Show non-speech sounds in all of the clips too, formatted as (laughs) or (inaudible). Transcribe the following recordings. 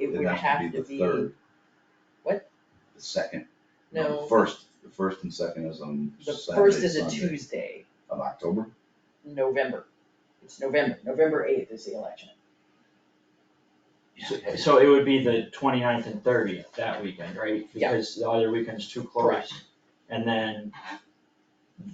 it has to be the third. what? The second, no, the No, first, the first and second is on the Saturday, first is a Sunday Tuesday, Of October, November. It's November, November eighth is the election. So- So it would be the 29th and thirtieth, that weekend, right? Yeah. Because the other weekend's too close. And then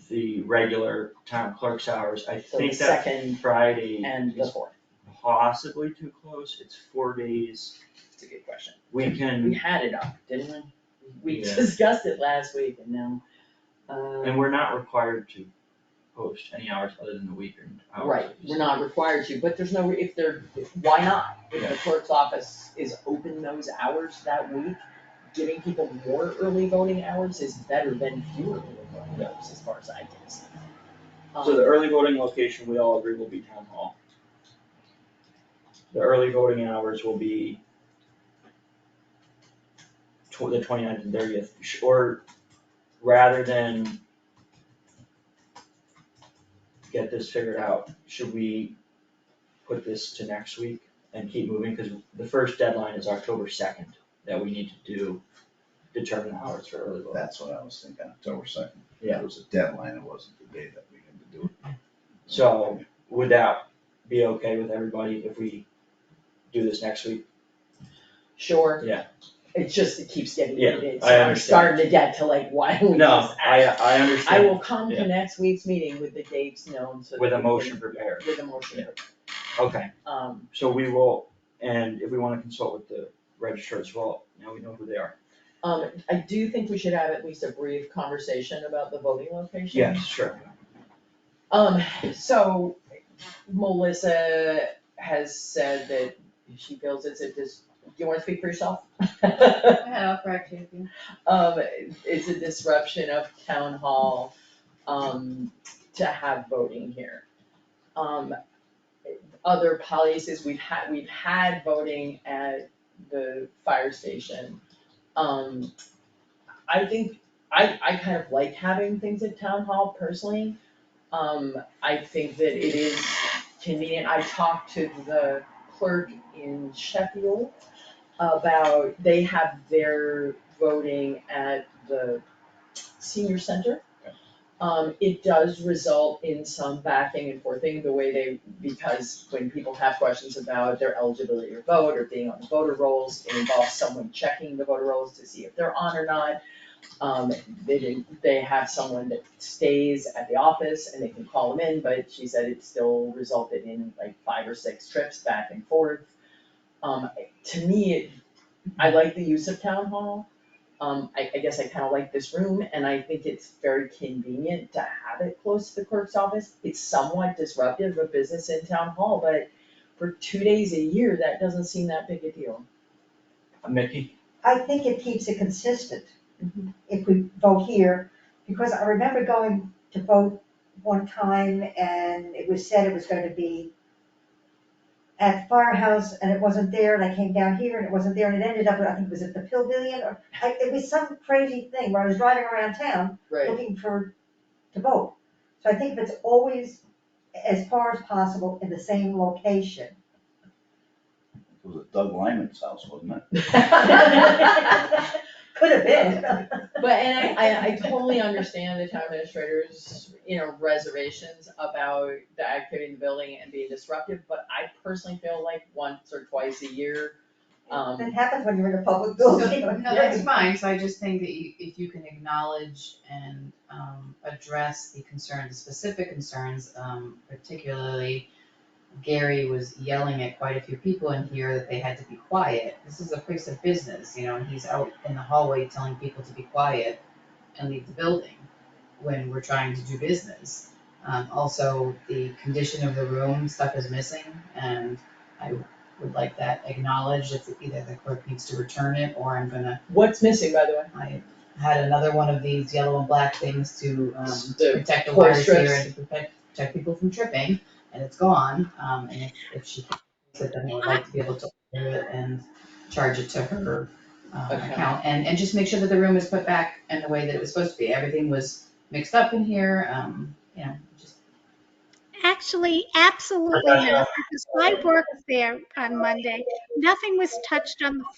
the regular town clerk's hours, I So the think that second Friday and the is fourth, possibly too close, it's four days. it's a good question. We We can, had it up, didn't we? We Yeah. discussed it last week and now, and um, we're not required to post any hours other than the weekend hours. right, we're not required to, but there's no, re- if they're, why not? If the Yeah. clerk's office is open those hours that week, giving people more early voting hours is better than fewer early voting hours as far as I can see. So the Um, early voting location, we all agree, will be town hall. The early voting hours will be tw- the 29th and thirtieth, or rather than get this figured out, should we put this to next week and keep moving, cause the first deadline is October second, that we need to do, determine the hours for early voting. that's what I was thinking, October second. Yeah. It was a deadline, it wasn't the day that we had to do it. So- Would that be okay with everybody if we do this next week? Sure. Yeah. It just, it keeps getting, Yeah, heated, so I I'm understand. starting to get to like, why don't we No, just I, act? I I understand, will come to Yeah. next week's meeting with the dates known, so. with that a we can- motion prepared, With a motion, okay, um, so we will, and if we wanna consult with the registrar as well, now we know who they are. um, I do think we should have at least a brief conversation about the voting location. Yes, sure, Um, so Melissa has said that she feels it's a dis, do you wanna speak for yourself? (laughs) Go ahead, I'll correct you if you. um, it's a disruption of town hall, um, to have voting here. Um, other policies, we've had, we've had voting at the fire station. Um, I think, I, I kind of like having things at town hall personally. Um, I think that it is convenient, I talked to the clerk in Sheffield about, they have their voting at the senior center. Um, it does result in some backing and forthing, the way they, because when people have questions about their eligibility to vote or being on the voter rolls, it involves someone checking the voter rolls to see if they're on or not. Um, they didn't, they have someone that stays at the office and they can call them in, but she said it still resulted in like five or six trips back and forth. Um, to me, it, I like the use of town hall. Um, I, I guess I kinda like this room and I think it's very convenient to have it close to the clerk's office. It's somewhat disruptive of business in town hall, but for two days a year, that doesn't seem that big a deal. Mickey, I think it keeps it consistent Mm-hmm. if we vote here, because I remember going to vote one time and it was said it was gonna be at the firehouse and it wasn't there and I came down here and it wasn't there and it ended up, I think it was at the pavilion or, I, it was some crazy thing where I was driving around town (laughs) Right, looking for, to vote. So I think if it's always as far as possible in the same location, It was at Doug Lyman's house, wasn't it? could have been. but, and I, I, I totally understand the town administrator's, you know, reservations about the activity in the building and being disruptive, but I personally feel like once or twice a year, um, It happens when you're in a public So, building. (laughs) no, that's fine, so I just think that you, if you can acknowledge and, um, address the concerns, the specific concerns, um, particularly Gary was yelling at quite a few people in here that they had to be quiet, this is a place of business, you know, and he's out in the hallway telling people to be quiet and leave the building when we're trying to do business. Um, also, the condition of the room, stuff is missing, and I would like that acknowledged if either the clerk needs to return it or I'm gonna, what's missing, by the way? I had another one of these yellow and black things to um The protect the cord wires here strips. and to protect protect people from tripping and it's gone, um and if if she said then I would like to be able to order it and charge it to her um Account. account and and just make sure that the room is put back in the way that it was supposed to be, everything was mixed up in here, um you know, just Actually, absolutely not, because I worked there on Monday. Nothing was touched on the